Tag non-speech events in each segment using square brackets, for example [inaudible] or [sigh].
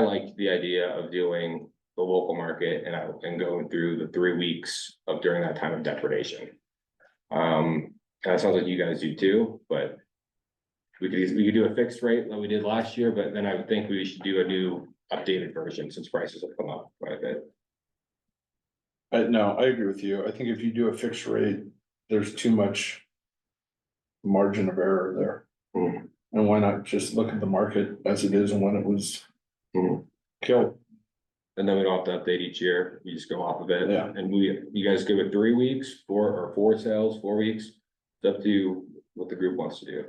I liked the idea of doing the local market and I, and going through the three weeks of during that time of depredation. Um, and it sounds like you guys do too, but. We could, eas- we could do a fixed rate like we did last year, but then I would think we should do a new updated version since prices have come up quite a bit. I no, I agree with you. I think if you do a fixed rate, there's too much. Margin of error there. Hmm. And why not just look at the market as it is and when it was. Hmm. Killed, And then we don't have to update each year. You just go off of it. Yeah. And we, you guys give it three weeks, four or four sales, four weeks. It's up to you what the group wants to do.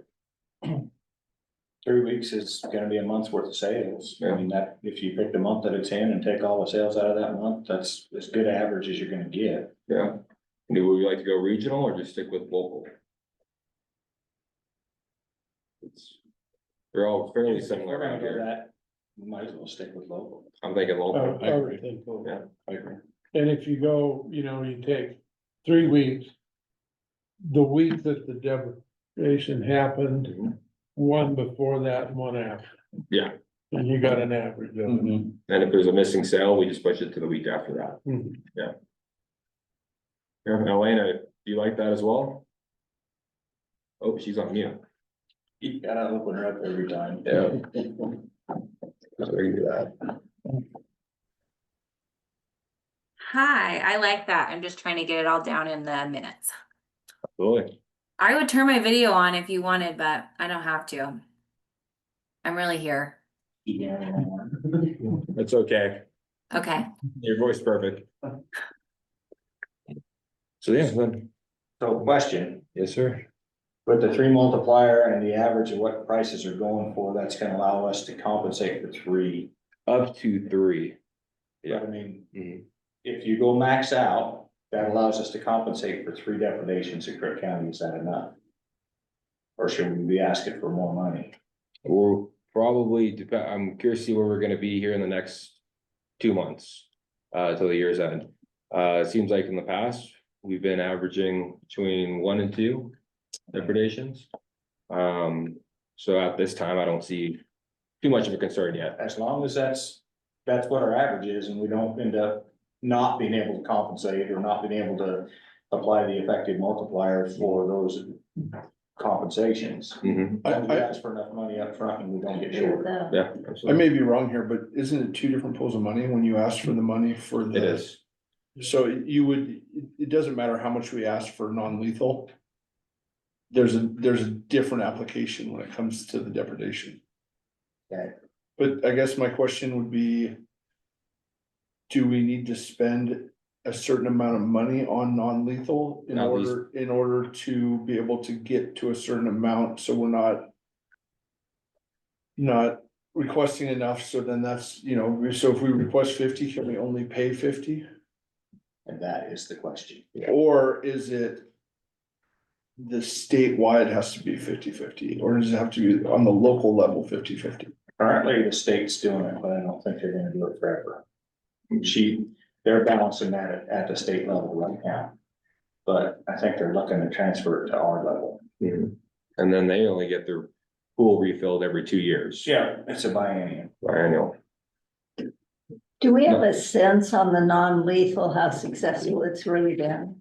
Three weeks is gonna be a month's worth of sales. I Yeah. mean, that, if you pick the month that it's in and take all the sales out of that month, that's as good average as you're gonna get. Yeah. Do we like to go regional or just stick with local? It's, they're all fairly similar We're gonna around go here. that, Oh. we Might as well stick with local. I'm thinking I local. I would think, so. Yeah. I agree. and if you go, you know, you take three weeks. The week that the depreciation happened, Mhm. one before that, and one after. Yeah. Mm-hmm. And you got an average of it. And if there's a missing sale, we just push it to the week after that. Mm-hmm. Mhm. Yeah, Elena, do you like that as well? Oh, she's on mute. You gotta open her up every time. Yeah. that. Hi, I like that. I'm just trying to get it all down in the minutes. Absolutely. I would turn my video on if you wanted, but I don't have to. I'm really here. That's okay. Okay. Your voice is [laughs] perfect. So yeah, then, So question, yes, sir. with the three multiplier and the average of what prices are going for, that's gonna allow us to compensate for three. Up to three. Yeah. But I mean, Mhm. if you go max out, that allows us to compensate for three depredations in Cook County. Is that enough? Or should we be asking for more money? We're probably, depe- I'm curious to see where we're gonna be here in the next two months, uh, till the year's end. Uh, it seems like in the past, we've been averaging between one and two depredations. Um, so at this time, I don't see too much of a concern yet. As long as that's, that's what our average is and we don't end up not being able to compensate or not being able to apply the effective multiplier for those compensations. Mhm. I As long as we I ask for enough money up front and we don't get short. yeah, I absolutely. may be wrong here, but isn't it two different pools of money when you ask for the money for the? It is, So you would, it, it doesn't matter how much we ask for non-lethal. There's a, there's a different application when it comes to the depredation. Okay. But I guess my question would be. Do we need to spend a certain amount of money on non-lethal in At least- order, in order to be able to get to a certain amount, so we're not. Not requesting enough, so then that's, you know, so if we request fifty, can we only pay fifty? And that is the question. Or is it? The statewide has to be 50-50, or does it have to be on the local level 50-50? Currently, the state's doing it, but I don't think they're gonna do it forever. She, they're balancing that at, at the state level right now. But I think they're looking to transfer it to our level. and then they only get their pool refilled every two years. Yeah. It's a biennium. Biennial. Do we have No. a sense on the non-lethal, how successful it's really been?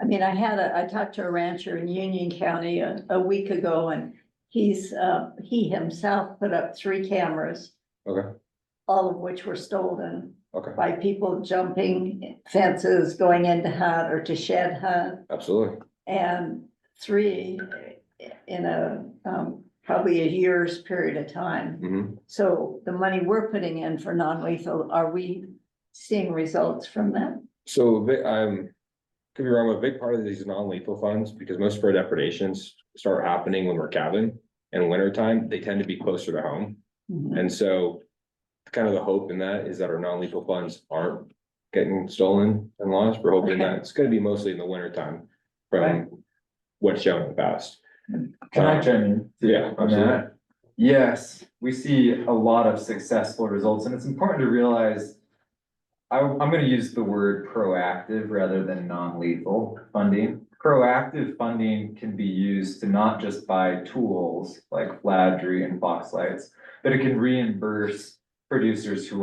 I mean, I had a, I talked to a rancher in Union County a, a week ago and he's, uh, he himself put up three cameras, okay, all of which were stolen okay, by people jumping fences, going into hut or to shed hut. absolutely. And three in a, um, probably a year's period of time. Mhm. So the money we're putting in for non-lethal, are we seeing results from that? So, vi- um, could be wrong, but a big part of these non-lethal funds, because most of our depredations start happening when we're calving. In winter time, they tend to be closer to home. And so kind of the hope in that is that our non-lethal funds aren't getting stolen and lost. We're hoping that it's gonna be mostly in the winter time Right. from what's shown in the past. Um, Can I chime in? Yeah, On absolutely. that? Yes, we see a lot of successful results and it's important to realize. I, am gonna use the word proactive rather than non-lethal funding. Proactive funding can be used to not just buy tools like Fladry and Foxlights, but it can reimburse producers who